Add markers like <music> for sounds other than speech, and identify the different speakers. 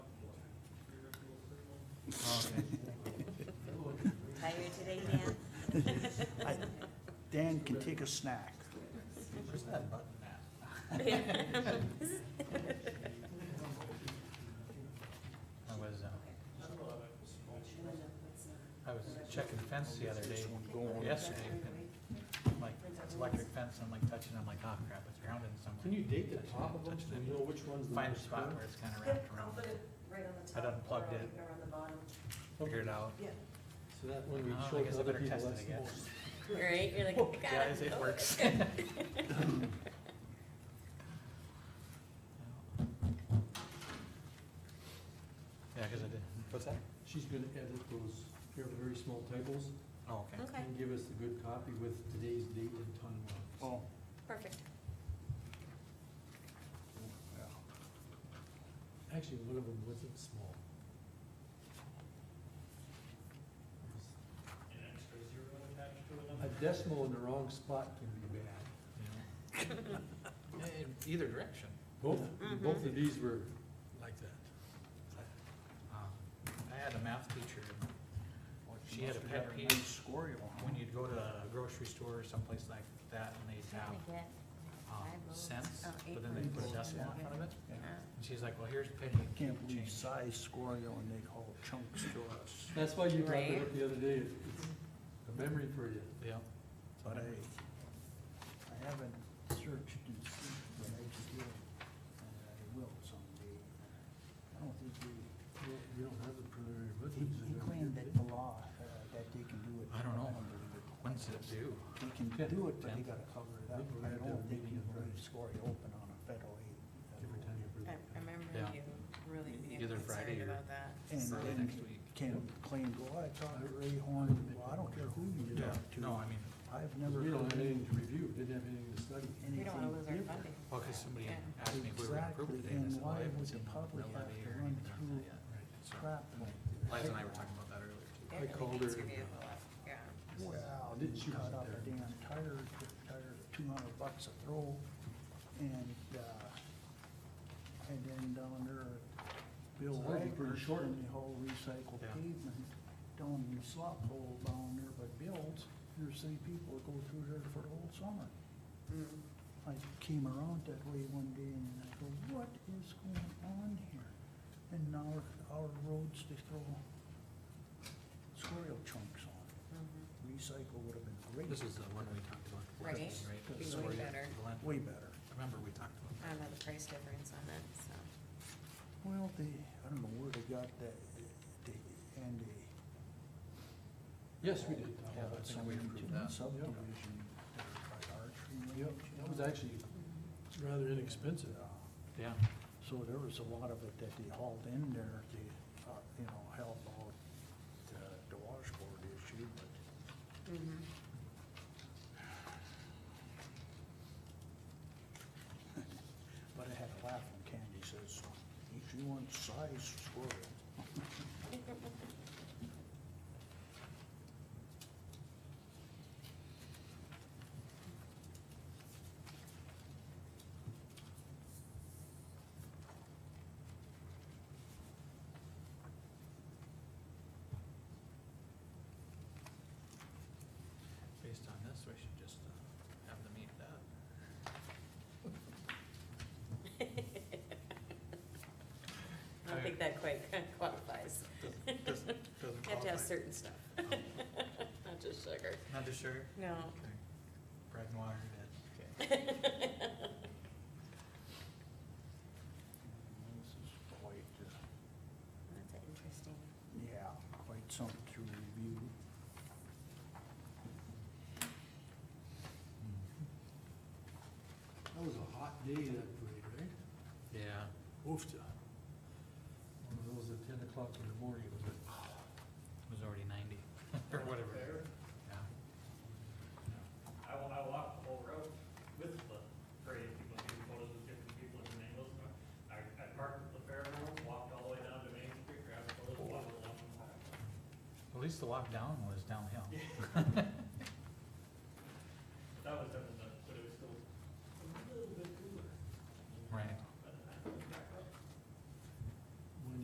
Speaker 1: <laughs>
Speaker 2: I- Dan can take a snack.
Speaker 1: Where's that button at? I was, uh, I was checking the fence the other day, yesterday, and like, it's electric fence, I'm like touching, I'm like, oh crap, it's rounded somewhere.
Speaker 3: Can you date the top of them
Speaker 1: Touch
Speaker 3: so
Speaker 1: it.
Speaker 3: you know which one's the
Speaker 1: Find a
Speaker 3: most?
Speaker 1: spot where it's kinda wrapped around,
Speaker 4: right on the
Speaker 1: I'd
Speaker 4: top or
Speaker 1: unplugged it.
Speaker 4: around the bottom.
Speaker 1: figure it out.
Speaker 4: Yeah.
Speaker 3: So that
Speaker 1: Uh,
Speaker 3: when we
Speaker 1: I
Speaker 3: show
Speaker 1: guess I
Speaker 3: other
Speaker 1: better
Speaker 3: people,
Speaker 1: test
Speaker 3: that's
Speaker 1: it
Speaker 3: the
Speaker 1: again.
Speaker 3: most.
Speaker 5: Right, you're like, got
Speaker 1: Yeah,
Speaker 5: it.
Speaker 1: it- it
Speaker 5: Oh, <laughs>
Speaker 1: works. Yeah, cause I did, what's that?
Speaker 3: She's gonna edit those, here very small typos
Speaker 1: Oh, okay.
Speaker 5: Okay,
Speaker 3: and give us the good copy with today's date and time on it.
Speaker 2: Oh,
Speaker 5: perfect.
Speaker 2: yeah.
Speaker 3: Actually, one of them wasn't small. A decimal in the wrong spot can be bad.
Speaker 1: Yeah. In either direction.
Speaker 3: Both, both
Speaker 5: Mhm.
Speaker 3: of these were like that.
Speaker 1: Um, I had a math teacher, and she had a
Speaker 2: Must've got
Speaker 1: pet
Speaker 2: her
Speaker 1: peeve
Speaker 2: nice Score you on.
Speaker 1: when you'd go to a grocery store or someplace like that and they'd have, um,
Speaker 5: Five loaves.
Speaker 1: cents,
Speaker 5: Oh, eight
Speaker 1: but then they'd put a
Speaker 5: loaves.
Speaker 1: decimal in front of it.
Speaker 2: Yeah.
Speaker 1: And she's like, well, here's a penny, you
Speaker 2: Can't
Speaker 1: can't
Speaker 2: believe
Speaker 1: change.
Speaker 2: size score you and they call chunks to us.
Speaker 3: That's why you brought
Speaker 5: Right.
Speaker 3: it up the other day, it's a memory for you.
Speaker 1: Yeah,
Speaker 2: But I, I haven't searched and seen what I could do, and I will someday. I don't think they,
Speaker 3: You don't have the preliminary
Speaker 2: he, he claimed that the law, uh, that they can do it.
Speaker 1: I don't know.
Speaker 2: believe it.
Speaker 1: when's it due?
Speaker 2: They can do it, but they gotta cover it up.
Speaker 3: Think we're gonna have
Speaker 2: I
Speaker 3: to
Speaker 2: don't
Speaker 3: have a
Speaker 2: think
Speaker 3: meeting
Speaker 2: you
Speaker 3: in
Speaker 2: can
Speaker 3: March.
Speaker 2: score you open on a federal aid. uh,
Speaker 3: Every time you
Speaker 5: I
Speaker 3: bring
Speaker 5: I remember
Speaker 1: Yeah.
Speaker 5: you really being
Speaker 1: Either Friday or-
Speaker 5: concerned about that.
Speaker 2: And
Speaker 1: Early
Speaker 2: then
Speaker 1: next week.
Speaker 2: can claim, well, I thought Ray Horn, well, I don't care who you
Speaker 1: Yeah,
Speaker 2: talk to.
Speaker 1: no, I mean,
Speaker 2: I've
Speaker 3: Because
Speaker 2: never
Speaker 3: we don't
Speaker 2: heard
Speaker 3: have
Speaker 2: anything
Speaker 3: anything to review, didn't have anything to study.
Speaker 5: We don't wanna lose our
Speaker 2: different.
Speaker 5: funding.
Speaker 1: well, cause somebody
Speaker 5: Yeah.
Speaker 1: asked me if we were gonna approve it today, and I said,
Speaker 2: Exactly, and
Speaker 1: well, I
Speaker 2: why
Speaker 1: haven't
Speaker 2: would the
Speaker 1: seen
Speaker 2: public
Speaker 1: no
Speaker 2: have
Speaker 1: levy or
Speaker 2: to run
Speaker 1: anything on that yet. So,
Speaker 2: Crap
Speaker 1: Liza
Speaker 2: like this.
Speaker 1: and I were talking about that earlier too.
Speaker 5: They're
Speaker 3: I
Speaker 5: really
Speaker 3: called her.
Speaker 5: conservative a lot, Yeah.
Speaker 2: Well,
Speaker 3: Didn't
Speaker 2: you
Speaker 3: she
Speaker 2: cut
Speaker 3: was
Speaker 2: up a
Speaker 3: there.
Speaker 2: damn tire, took tire, two hundred bucks a throw, and, uh, and then down there, Bill
Speaker 3: Sounds like
Speaker 2: Wagner,
Speaker 3: pretty short.
Speaker 2: and the whole recycled
Speaker 1: Yeah.
Speaker 2: pavement, down in the slop hole down there by Bill's, there's three people that go through there for the whole summer.
Speaker 5: Mm.
Speaker 2: I came around that way one day and I go, what is going on here? And now our roads, they throw squirrel chunks on.
Speaker 5: Mhm.
Speaker 2: Recycle would have been great.
Speaker 1: This is the one we talked about.
Speaker 5: Right.
Speaker 1: Christmas, Right?
Speaker 2: Be
Speaker 1: This is
Speaker 2: way
Speaker 1: where you-
Speaker 5: better.
Speaker 1: the land-
Speaker 2: Way better.
Speaker 1: Remember, we talked about
Speaker 5: I don't know the price difference on it, so.
Speaker 2: Well, they, I don't know where they got that, they, and they.
Speaker 3: Yes, we did.
Speaker 1: Yeah, I think we
Speaker 2: something
Speaker 1: approved
Speaker 2: to
Speaker 1: that.
Speaker 2: Subdivision, there by Archery.
Speaker 3: Yep, that was actually rather inexpensive.
Speaker 1: that. Yeah.
Speaker 2: So there was a lot of it that they hauled in there to, uh, you know, help out the, the washboard issue, but
Speaker 5: Mhm.
Speaker 2: But I had a laugh when Candy says, if you want size squirrel.
Speaker 1: Based on this, we should just uh, have them eat that.
Speaker 5: <laughs> I don't think that quite <laughs> qualifies.
Speaker 1: Doesn't- Doesn't doesn't
Speaker 5: Have to have
Speaker 1: qualify.
Speaker 5: certain stuff, <laughs> not just sugar.
Speaker 1: Not just sugar?
Speaker 5: No.
Speaker 1: Okay. Bread and water, that.
Speaker 5: <laughs>
Speaker 2: This is quite, uh,
Speaker 5: That's an interesting.
Speaker 2: yeah, quite something to review.
Speaker 3: That was a hot day that parade, right?
Speaker 1: Yeah.
Speaker 3: Oofta. One of those at ten o'clock in the morning, it was like,
Speaker 1: It was already ninety, <laughs> or whatever. Yeah.
Speaker 6: I, wa- I walked the whole road with the parade, people taking photos with different people at different angles. I, I parked at the fairgrounds, walked all the way down to Main Street, grabbed photos, walked along.
Speaker 1: At least the walk down was downhill.